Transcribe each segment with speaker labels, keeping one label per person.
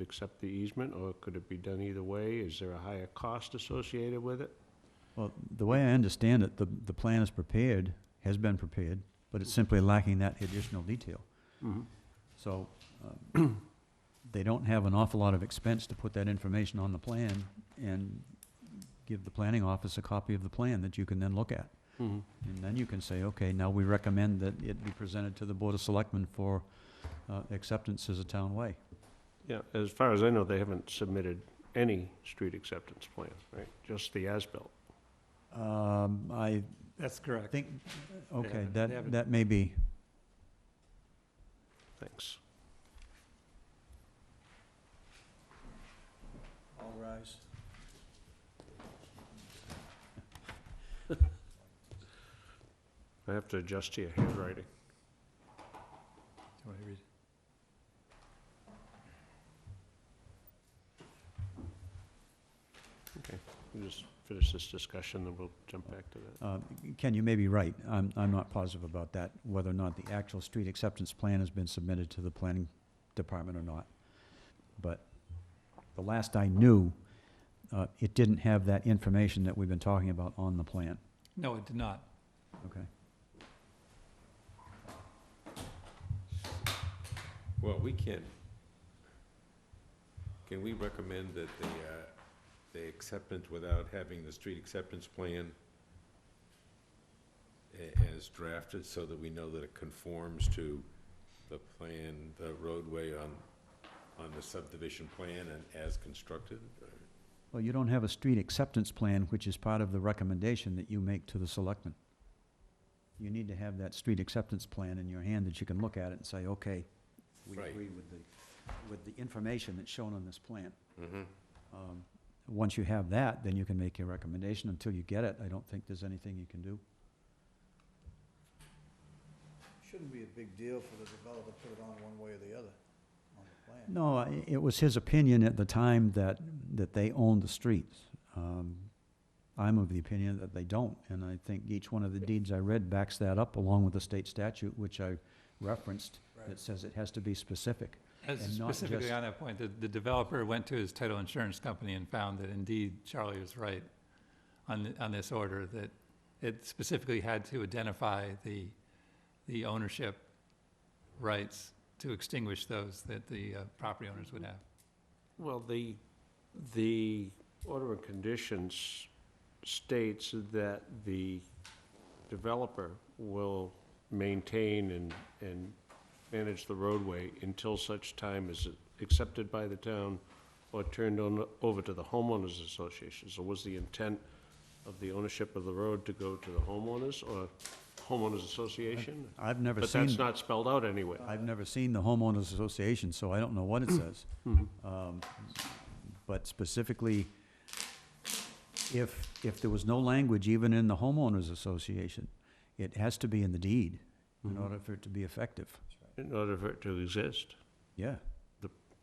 Speaker 1: accept the easement, or could it be done either way? Is there a higher cost associated with it?
Speaker 2: Well, the way I understand it, the, the plan is prepared, has been prepared, but it's simply lacking that additional detail.
Speaker 1: Mm-hmm.
Speaker 2: So, um, they don't have an awful lot of expense to put that information on the plan and give the planning office a copy of the plan that you can then look at. And then you can say, okay, now we recommend that it be presented to the Board of Selectmen for, uh, acceptance as a town way.
Speaker 1: Yeah, as far as I know, they haven't submitted any street acceptance plan, right? Just the as-built.
Speaker 2: Um, I
Speaker 3: That's correct.
Speaker 2: think, okay,
Speaker 3: haven't- they
Speaker 2: that,
Speaker 3: haven't-
Speaker 2: that may be,
Speaker 1: Thanks.
Speaker 2: All rise.
Speaker 1: I have to adjust to your handwriting. We'll just finish this discussion, then we'll jump back to that.
Speaker 2: Uh, Ken, you may be right. I'm, I'm not positive about that, whether or not the actual street acceptance plan has been submitted to the planning department or not. But the last I knew, uh, it didn't have that information that we've been talking about on the plan,
Speaker 3: No, it did not.
Speaker 2: okay?
Speaker 4: Well, we can, can we recommend that the, uh, the acceptance without having the street acceptance plan a- as drafted, so that we know that it conforms to the plan, the roadway on, on the subdivision plan and as constructed?
Speaker 2: Well, you don't have a street acceptance plan, which is part of the recommendation that you make to the selectmen. You need to have that street acceptance plan in your hand that you can look at it and say, okay, we
Speaker 4: Right.
Speaker 2: agree with the, with the information that's shown on this plan.
Speaker 4: Mm-hmm.
Speaker 2: Um, Once you have that, then you can make your recommendation. Until you get it, I don't think there's anything you can do.
Speaker 5: Shouldn't be a big deal for the developer to put it on one way or the other on the plan.
Speaker 2: No, I- it was his opinion at the time that, that they owned the streets. Um, I'm of the opinion that they don't, and I think each one of the deeds I read backs that up along with the state statute, which I referenced, that says it has to be specific.
Speaker 3: As
Speaker 2: And not
Speaker 3: Specifically
Speaker 2: just-
Speaker 3: on that point, the, the developer went to his title insurance company and found that indeed Charlie was right on, th- on this order, that it specifically had to identify the, the ownership rights to extinguish those that the uh, property owners would have.
Speaker 1: Well, the, the order of conditions states that the developer will maintain and, and manage the roadway until such time as it accepted by the town or turned on, over to the homeowners association. So was the intent of the ownership of the road to go to the homeowners or homeowners association?
Speaker 2: I've never
Speaker 1: But
Speaker 2: seen.
Speaker 1: that's not spelled out anyway.
Speaker 2: I've never seen the homeowners association, so I don't know what it
Speaker 1: Mm-hmm.
Speaker 2: says. Um, But specifically, if, if there was no language even in the homeowners association, it has to be in the deed in
Speaker 1: Mm-hmm.
Speaker 2: order for it to be effective.
Speaker 1: In order for it to exist,
Speaker 2: Yeah,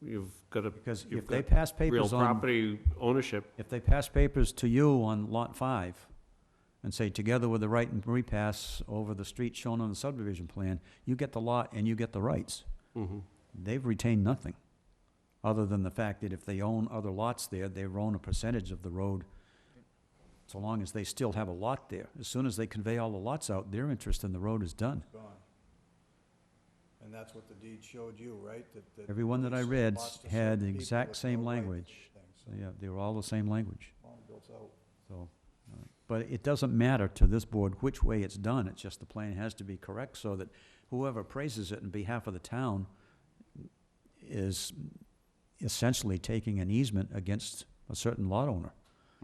Speaker 1: you've got to
Speaker 2: because
Speaker 1: You've
Speaker 2: if they
Speaker 1: got
Speaker 2: pass
Speaker 1: real
Speaker 2: papers on,
Speaker 1: property ownership,
Speaker 2: if they pass papers to you on lot five and say, together with the right and repass over the street shown on the subdivision plan, you get the lot and you get the rights. they've retained nothing, other than the fact that if they own other lots there, they own a percentage of the road, so long as they still have a lot there. As soon as they convey all the lots out, their interest in the road is done.
Speaker 5: Gone. And that's what the deed showed you, right? That- that
Speaker 2: Everyone that I
Speaker 5: these
Speaker 2: read
Speaker 5: lots to
Speaker 2: had
Speaker 5: certain
Speaker 2: the
Speaker 5: people
Speaker 2: exact
Speaker 5: with
Speaker 2: same
Speaker 5: no right to
Speaker 2: language.
Speaker 5: anything,
Speaker 2: So,
Speaker 5: so
Speaker 2: yeah, they were all the same language,
Speaker 5: long built out.
Speaker 2: so. uh, But it doesn't matter to this board which way it's done, it's just the plan has to be correct so that whoever praises it in behalf of the town is essentially taking an easement against a certain lot owner.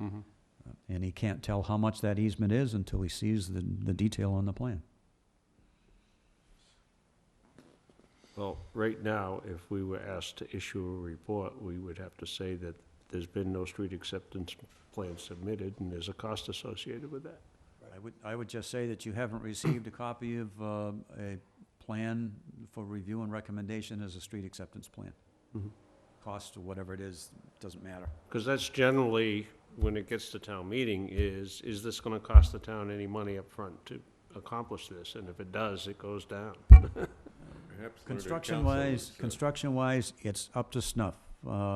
Speaker 2: Mm-hmm. Uh, And he can't tell how much that easement is until he sees the, the detail on the plan.
Speaker 1: well, right now, if we were asked to issue a report, we would have to say that there's been no street acceptance plan submitted, and there's a cost associated with that.
Speaker 2: I would, I would just say that you haven't received a copy of, uh, a plan for review and recommendation as a street acceptance plan. Mm-hmm.
Speaker 1: Mhm.
Speaker 2: Cost or whatever it is, doesn't matter.
Speaker 1: Because that's generally, when it gets to town meeting, is, is this gonna cost the town any money up front to accomplish this? And if it does, it goes down.
Speaker 4: Perhaps. the learned
Speaker 2: Construction
Speaker 4: counsel
Speaker 2: wise,
Speaker 4: is, uh,
Speaker 2: construction wise, it's up to snuff. uh,